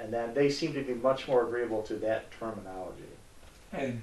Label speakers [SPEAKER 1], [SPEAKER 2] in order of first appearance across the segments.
[SPEAKER 1] And then they seem to be much more agreeable to that terminology.
[SPEAKER 2] And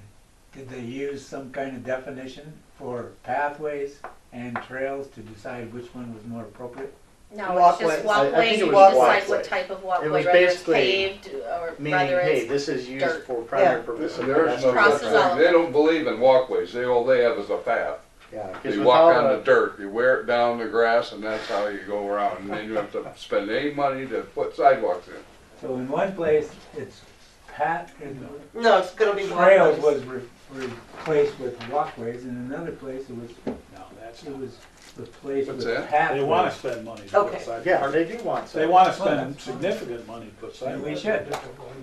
[SPEAKER 2] did they use some kind of definition for pathways and trails to decide which one was more appropriate?
[SPEAKER 3] No, it's just
[SPEAKER 1] Walkway. I- I
[SPEAKER 3] walkways,
[SPEAKER 1] think it
[SPEAKER 3] you
[SPEAKER 1] was
[SPEAKER 3] decide
[SPEAKER 1] walkway.
[SPEAKER 3] what type of
[SPEAKER 1] It
[SPEAKER 3] walkway,
[SPEAKER 1] was
[SPEAKER 3] whether it's
[SPEAKER 1] basically
[SPEAKER 3] paved or
[SPEAKER 1] Meaning,
[SPEAKER 3] whether
[SPEAKER 1] hey,
[SPEAKER 3] it's,
[SPEAKER 1] this is used
[SPEAKER 3] dirt.
[SPEAKER 1] for primary
[SPEAKER 4] Yeah.
[SPEAKER 1] purposes.
[SPEAKER 5] There's no,
[SPEAKER 3] Crosses all.
[SPEAKER 5] they don't believe in walkways, they, all they have is a path.
[SPEAKER 1] Yeah, because
[SPEAKER 5] You walk
[SPEAKER 1] without
[SPEAKER 5] on the
[SPEAKER 1] a,
[SPEAKER 5] dirt, you wear it down the grass, and that's how you go around, and then you have to spend any money to put sidewalks in.
[SPEAKER 2] So in one place, it's pat, and
[SPEAKER 4] No, it's gonna be
[SPEAKER 2] trails was
[SPEAKER 4] walkways.
[SPEAKER 2] re- replaced with walkways, and another place it was,
[SPEAKER 6] No, that's
[SPEAKER 2] it
[SPEAKER 6] not.
[SPEAKER 2] was replaced
[SPEAKER 5] What's
[SPEAKER 2] with
[SPEAKER 5] that?
[SPEAKER 2] pathways.
[SPEAKER 6] They wanna spend money to put
[SPEAKER 4] Okay.
[SPEAKER 6] sidewalks.
[SPEAKER 1] yeah, they do want
[SPEAKER 6] They
[SPEAKER 1] some.
[SPEAKER 6] wanna spend significant money to put
[SPEAKER 2] And
[SPEAKER 6] sidewalks.
[SPEAKER 2] we should.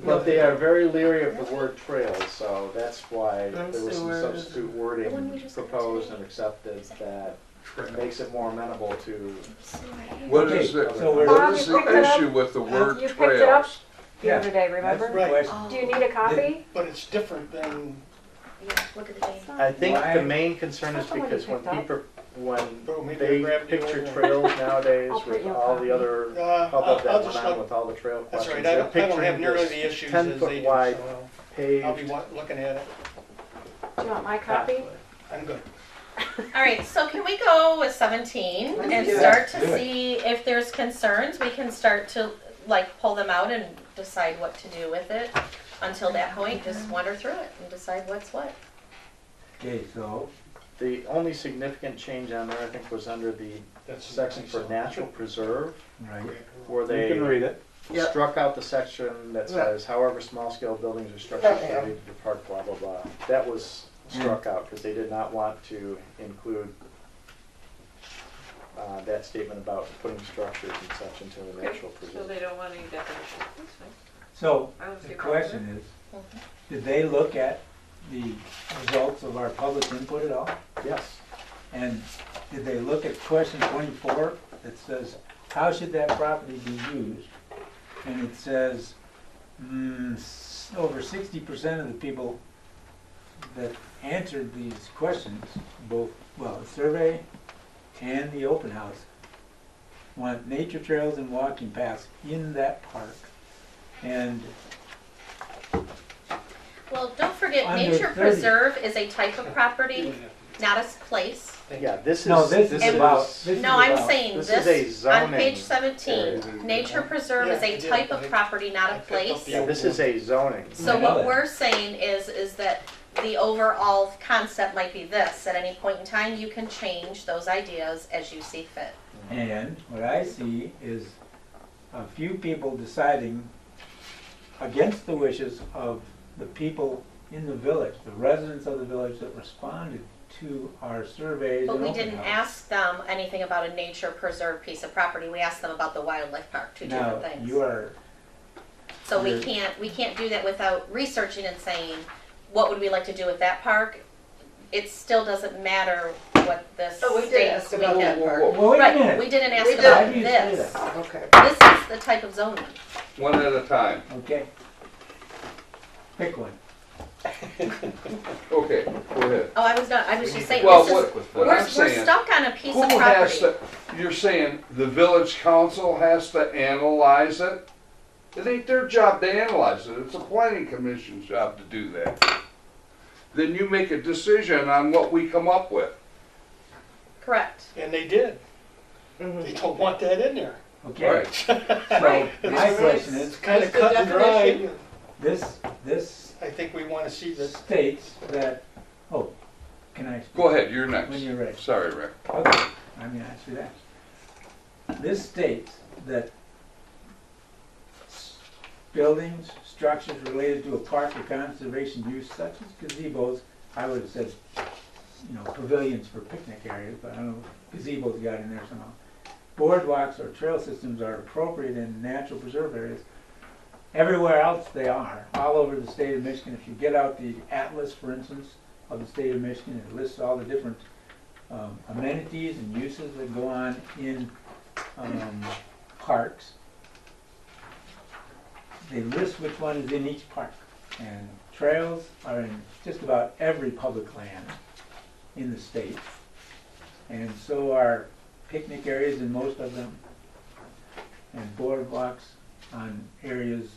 [SPEAKER 1] But they are very leery of the word trail, so that's why there was some
[SPEAKER 4] Sewers.
[SPEAKER 1] substitute
[SPEAKER 3] The one we
[SPEAKER 1] wording
[SPEAKER 3] just got
[SPEAKER 1] proposed
[SPEAKER 3] today.
[SPEAKER 1] and accepted that makes it more amenable to,
[SPEAKER 5] What is the,
[SPEAKER 2] Okay, so we're-
[SPEAKER 5] what is
[SPEAKER 7] Bob, you picked
[SPEAKER 5] the
[SPEAKER 7] it up?
[SPEAKER 5] issue with the word
[SPEAKER 7] Uh, You picked it up?
[SPEAKER 5] trails?
[SPEAKER 7] The
[SPEAKER 2] Yeah.
[SPEAKER 7] other day, remember?
[SPEAKER 2] That's the question.
[SPEAKER 3] Oh,
[SPEAKER 7] Do you need a copy?
[SPEAKER 8] But it's different than
[SPEAKER 3] yeah, look at the date.
[SPEAKER 1] I think
[SPEAKER 2] Why-
[SPEAKER 1] the main concern is
[SPEAKER 7] That's the one you
[SPEAKER 1] because when
[SPEAKER 7] picked up.
[SPEAKER 1] people, when
[SPEAKER 8] Bro, maybe I
[SPEAKER 1] they
[SPEAKER 8] grabbed the
[SPEAKER 1] picture
[SPEAKER 8] old one.
[SPEAKER 1] trails nowadays
[SPEAKER 7] I'll print
[SPEAKER 1] with
[SPEAKER 7] you a
[SPEAKER 1] all
[SPEAKER 7] copy.
[SPEAKER 1] the other
[SPEAKER 8] Uh,
[SPEAKER 1] hubbub
[SPEAKER 8] I'll, I'll
[SPEAKER 1] that
[SPEAKER 8] just
[SPEAKER 1] went on
[SPEAKER 8] look,
[SPEAKER 1] with all the trail
[SPEAKER 8] that's
[SPEAKER 1] questions.
[SPEAKER 8] right, I
[SPEAKER 1] They're
[SPEAKER 8] don't, I don't have
[SPEAKER 1] picturing
[SPEAKER 8] nearly
[SPEAKER 1] this
[SPEAKER 8] the issues
[SPEAKER 1] Ten
[SPEAKER 8] as
[SPEAKER 1] foot
[SPEAKER 8] they do,
[SPEAKER 1] wide
[SPEAKER 8] so I'll be
[SPEAKER 1] paved
[SPEAKER 8] wa- looking at it,
[SPEAKER 7] Do you want my copy?
[SPEAKER 1] pathway.
[SPEAKER 8] I'm good.
[SPEAKER 3] All right, so can we go with seventeen and
[SPEAKER 4] do it.
[SPEAKER 3] start
[SPEAKER 2] Do
[SPEAKER 3] to
[SPEAKER 2] it.
[SPEAKER 3] see if there's concerns, we can start to like pull them out and decide what to do with it. Until that point, just wander through it and decide what's what.
[SPEAKER 2] Okay, so,
[SPEAKER 1] The only significant change on there, I think, was under the
[SPEAKER 8] That's
[SPEAKER 1] section for natural preserve,
[SPEAKER 2] right,
[SPEAKER 1] where
[SPEAKER 6] You can
[SPEAKER 1] they
[SPEAKER 6] read it.
[SPEAKER 4] Yep.
[SPEAKER 1] struck out the section that
[SPEAKER 4] Yeah.
[SPEAKER 1] says however small scale buildings or structures
[SPEAKER 4] Okay.
[SPEAKER 1] related to the park, blah, blah, blah. That was
[SPEAKER 2] Mm.
[SPEAKER 1] struck out because they did not want to include uh, that statement about putting structures and such into the natural
[SPEAKER 9] So
[SPEAKER 1] preserve.
[SPEAKER 9] they don't want any definition. That's fine.
[SPEAKER 2] so,
[SPEAKER 9] I don't see
[SPEAKER 2] the
[SPEAKER 9] a problem with
[SPEAKER 2] question is,
[SPEAKER 3] Mhm.
[SPEAKER 2] did they look at the results of our public input at all?
[SPEAKER 1] Yes,
[SPEAKER 2] And did they look at question twenty-four that says, how should that property be used? And it says, mm, s- over sixty percent of the people that answered these questions, both, well, the survey and the open house, want nature trails and walking paths in that park. And
[SPEAKER 3] Well, don't forget,
[SPEAKER 2] Under
[SPEAKER 3] nature
[SPEAKER 2] 30.
[SPEAKER 3] preserve is a type of property, not a s- place.
[SPEAKER 1] yeah, this is.
[SPEAKER 2] No, this is about-
[SPEAKER 1] is-
[SPEAKER 2] this-
[SPEAKER 3] No, I'm
[SPEAKER 2] about-
[SPEAKER 3] saying
[SPEAKER 1] this is a
[SPEAKER 3] this, on
[SPEAKER 1] zoning
[SPEAKER 3] page
[SPEAKER 1] area.
[SPEAKER 3] seventeen, nature preserve is
[SPEAKER 8] Yeah,
[SPEAKER 3] a
[SPEAKER 8] I did.
[SPEAKER 3] type
[SPEAKER 8] I-
[SPEAKER 3] of property, not
[SPEAKER 8] I
[SPEAKER 3] a
[SPEAKER 8] picked up
[SPEAKER 3] place.
[SPEAKER 8] the
[SPEAKER 1] Yeah, this is a zoning.
[SPEAKER 3] So
[SPEAKER 2] I know
[SPEAKER 3] what
[SPEAKER 2] that.
[SPEAKER 3] we're saying is, is that the overall concept might be this, at any point in time, you can change those ideas as you see fit.
[SPEAKER 2] And what I see is a few people deciding against the wishes of the people in the village, the residents of the village that responded to our surveys
[SPEAKER 3] But
[SPEAKER 2] and
[SPEAKER 3] we
[SPEAKER 2] open
[SPEAKER 3] didn't
[SPEAKER 2] house.
[SPEAKER 3] ask them anything about a nature preserve piece of property, we asked them about the wildlife park, two different
[SPEAKER 2] Now, you
[SPEAKER 3] things.
[SPEAKER 2] are,
[SPEAKER 3] So we
[SPEAKER 2] you're-
[SPEAKER 3] can't, we can't do that without researching and saying, what would we like to do with that park? It still doesn't matter what this
[SPEAKER 4] Oh, we did
[SPEAKER 3] states
[SPEAKER 4] ask
[SPEAKER 3] we
[SPEAKER 4] about
[SPEAKER 3] did.
[SPEAKER 4] the
[SPEAKER 5] Whoa,
[SPEAKER 4] park.
[SPEAKER 2] well, wait a
[SPEAKER 3] Right, we
[SPEAKER 2] minute,
[SPEAKER 3] didn't ask
[SPEAKER 4] We
[SPEAKER 3] about
[SPEAKER 2] did. Oh, Why do you say
[SPEAKER 3] this.
[SPEAKER 4] Okay.
[SPEAKER 3] This is the type of zoning.
[SPEAKER 5] One at a time.
[SPEAKER 2] okay. Pick one.
[SPEAKER 5] Okay, go ahead.
[SPEAKER 3] Oh, I was not, I was just saying,
[SPEAKER 5] Well,
[SPEAKER 3] this is
[SPEAKER 5] what, what
[SPEAKER 3] We're,
[SPEAKER 5] I'm
[SPEAKER 3] we're
[SPEAKER 5] saying,
[SPEAKER 3] stuck on a piece
[SPEAKER 5] who
[SPEAKER 3] of
[SPEAKER 5] has
[SPEAKER 3] property.
[SPEAKER 5] to, you're saying the village council has to analyze it? It ain't their job to analyze it, it's the planning commission's job to do that. Then you make a decision on what we come up with.
[SPEAKER 3] Correct.
[SPEAKER 8] And they did, they don't want that in there.
[SPEAKER 2] Okay, so
[SPEAKER 4] Right.
[SPEAKER 2] my
[SPEAKER 4] It's-
[SPEAKER 2] question is,
[SPEAKER 8] It's kinda
[SPEAKER 4] Just the
[SPEAKER 8] cut and dry.
[SPEAKER 4] definition.
[SPEAKER 2] this, this
[SPEAKER 8] I think we wanna see this.
[SPEAKER 2] states that, oh, can I?
[SPEAKER 5] Go ahead, you're
[SPEAKER 2] When
[SPEAKER 5] next.
[SPEAKER 2] you're ready.
[SPEAKER 5] Sorry, Rick.
[SPEAKER 2] Okay, I mean, I should ask. This states that s- buildings, structures related to a park or conservation use such as gazebos, I would have said, you know, pavilions for picnic areas, but I don't know, gazebos got in there somehow. Boardwalks or trail systems are appropriate in natural preserve areas. Everywhere else they are, all over the state of Michigan. If you get out the atlas, for instance, of the state of Michigan, it lists all the different um, amenities and uses that go on in um, parks. They list which one is in each park, and trails are in just about every public land in the state. And so are picnic areas in most of them, and boardwalks on areas